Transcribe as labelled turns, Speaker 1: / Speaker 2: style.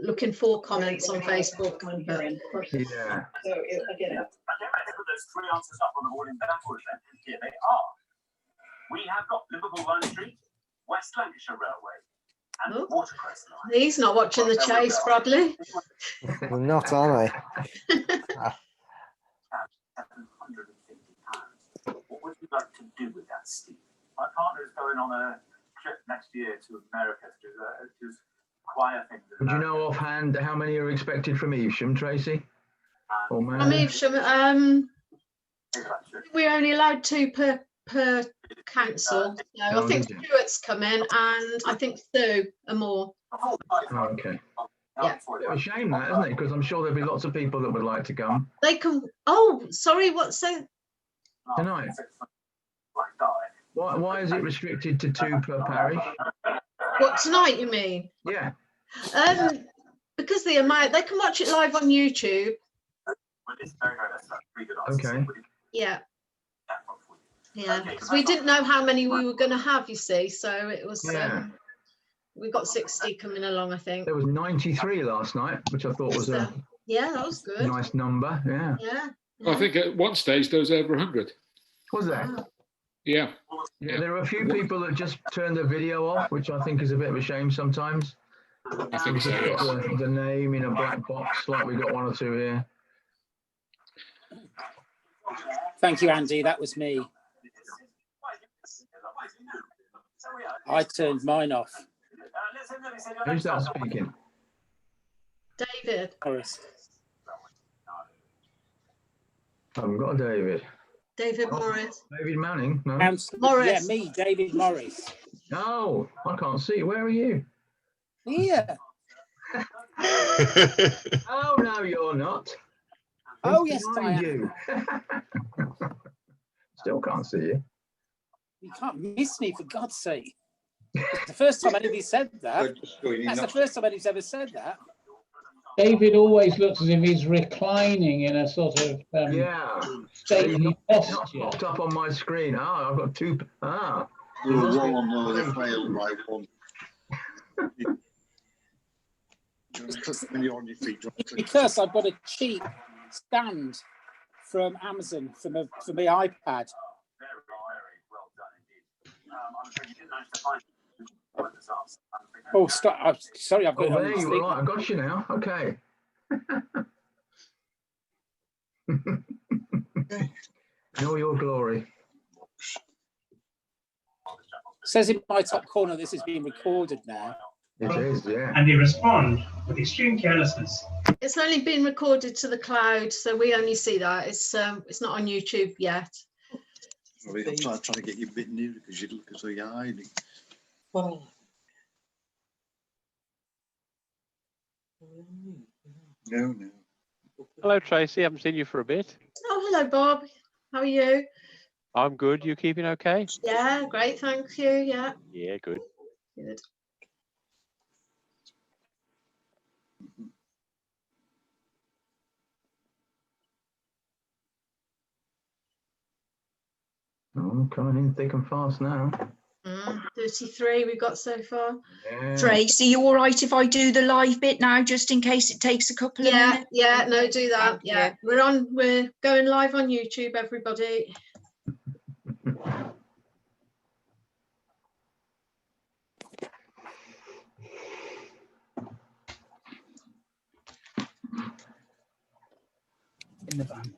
Speaker 1: looking for comments on Facebook. but-
Speaker 2: Yeah.
Speaker 3: So it- again,
Speaker 4: I don't think of those three answers up on the board in backwards, and here they are. We have got Liverpool Line Street, West Lancashire Railway,
Speaker 1: Oh.
Speaker 4: and Watercress Line.
Speaker 1: He's not watching the chase, Bradley.
Speaker 5: I'm not, am I?
Speaker 4: Seven hundred and fifty pounds. What would you like to do with that, Steve? My partner is going on a trip next year to America to do a, to do choir thing. in
Speaker 2: Do you know
Speaker 4: America.
Speaker 2: offhand how many are expected from Evesham, Tracy? Or
Speaker 4: And
Speaker 1: I mean,
Speaker 2: Mary?
Speaker 1: shall we- um,
Speaker 4: things like that.
Speaker 1: we're only allowed two per, per council. So I
Speaker 2: Oh,
Speaker 1: think
Speaker 2: is it?
Speaker 1: Stuart's come in and I think Sue and more.
Speaker 4: Oh, right,
Speaker 2: Oh, okay.
Speaker 1: Yeah.
Speaker 4: sorry.
Speaker 2: It's a shame that, isn't it? Because I'm sure there'll be lots of people that would like to come.
Speaker 1: They can, oh, sorry, what's that?
Speaker 2: Tonight.
Speaker 4: Like die.
Speaker 2: Why, why is it restricted to two per parish?
Speaker 1: What, tonight you mean?
Speaker 2: Yeah.
Speaker 1: Um, because the amount, they can watch it live on YouTube.
Speaker 4: But it's very, very, that's pretty good answer.
Speaker 2: Okay.
Speaker 1: Yeah,
Speaker 4: That one for you.
Speaker 1: yeah.
Speaker 4: Okay,
Speaker 1: Because we didn't know how many we were going to have, you see. So it was,
Speaker 2: Yeah.
Speaker 1: um, we got 60 coming along, I think.
Speaker 2: There was 93 last night, which I thought was a
Speaker 1: Yeah, that was good.
Speaker 2: nice number. Yeah.
Speaker 1: Yeah.
Speaker 6: I think at one stage there was over 100.
Speaker 2: Was there?
Speaker 6: Yeah.
Speaker 2: Yeah, there are a few people that just turn the video off, which I think is a bit of a shame sometimes.
Speaker 6: I think so,
Speaker 2: Just
Speaker 6: yes.
Speaker 2: put The, the name in a black box, like we got one or two here.
Speaker 7: Thank you, Andy. That was me. I turned mine off.
Speaker 2: Who's that speaking?
Speaker 1: David,
Speaker 7: Horace.
Speaker 2: I haven't got a David.
Speaker 1: David Morris.
Speaker 2: David Manning? No.
Speaker 7: Couns-
Speaker 1: Morris.
Speaker 7: Yeah, me, David Morris.
Speaker 2: No, Oh, I can't see. Where are you?
Speaker 7: Yeah.
Speaker 2: Oh, no, you're not.
Speaker 7: Oh,
Speaker 2: Who's
Speaker 7: yes, I
Speaker 2: behind
Speaker 7: am.
Speaker 2: you? Still can't see you.
Speaker 7: You can't miss me, for God's sake. It's the first time anybody's said that. That's the first time anybody's ever said that.
Speaker 8: David always looks as if he's reclining in a sort of um,
Speaker 2: Yeah.
Speaker 8: stately
Speaker 2: It's Not
Speaker 8: posture.
Speaker 2: popped up on my screen. Ah, I've got two. Ah,
Speaker 9: We were wrong on the failed by one. Just when you're on your feet. don't click.
Speaker 7: Because I've got a cheap stand from Amazon for my, for my iPad.
Speaker 4: Very, very well done indeed. Um, I'm afraid you didn't manage to find this answer. I'm afraid-
Speaker 7: Oh, stop. I'm sorry, I've
Speaker 2: oh,
Speaker 7: got it on
Speaker 2: there
Speaker 7: the
Speaker 2: you are.
Speaker 7: speaker.
Speaker 2: I've got you now. Okay. In all your glory.
Speaker 7: Says in my top corner, this is being recorded now.
Speaker 2: It is, yeah.
Speaker 10: and they respond with extreme carelessness.
Speaker 1: It's only been recorded to the cloud, so we only see that. It's um, it's not on YouTube yet.
Speaker 9: Sorry, I'm trying trying to get you a bit nearer because you look as though you're hiding. No, no.
Speaker 11: Hello, Tracy. Haven't seen you for a bit.
Speaker 1: Oh, hello, Bob. How are you?
Speaker 11: I'm good. You keeping okay?
Speaker 1: Yeah, great. Thank you. Yeah,
Speaker 11: Yeah, good.
Speaker 1: good.
Speaker 2: Oh, I'm coming in thick and fast now.
Speaker 1: Mm, 33 we've got so far.
Speaker 2: Yeah.
Speaker 3: Tracy, you all right if I do the live bit now, just in case it takes a couple of
Speaker 1: Yeah,
Speaker 3: minutes?
Speaker 1: yeah, no, do that.
Speaker 3: Thank
Speaker 1: Yeah, we're on, we're going live on YouTube, everybody.
Speaker 7: In the van.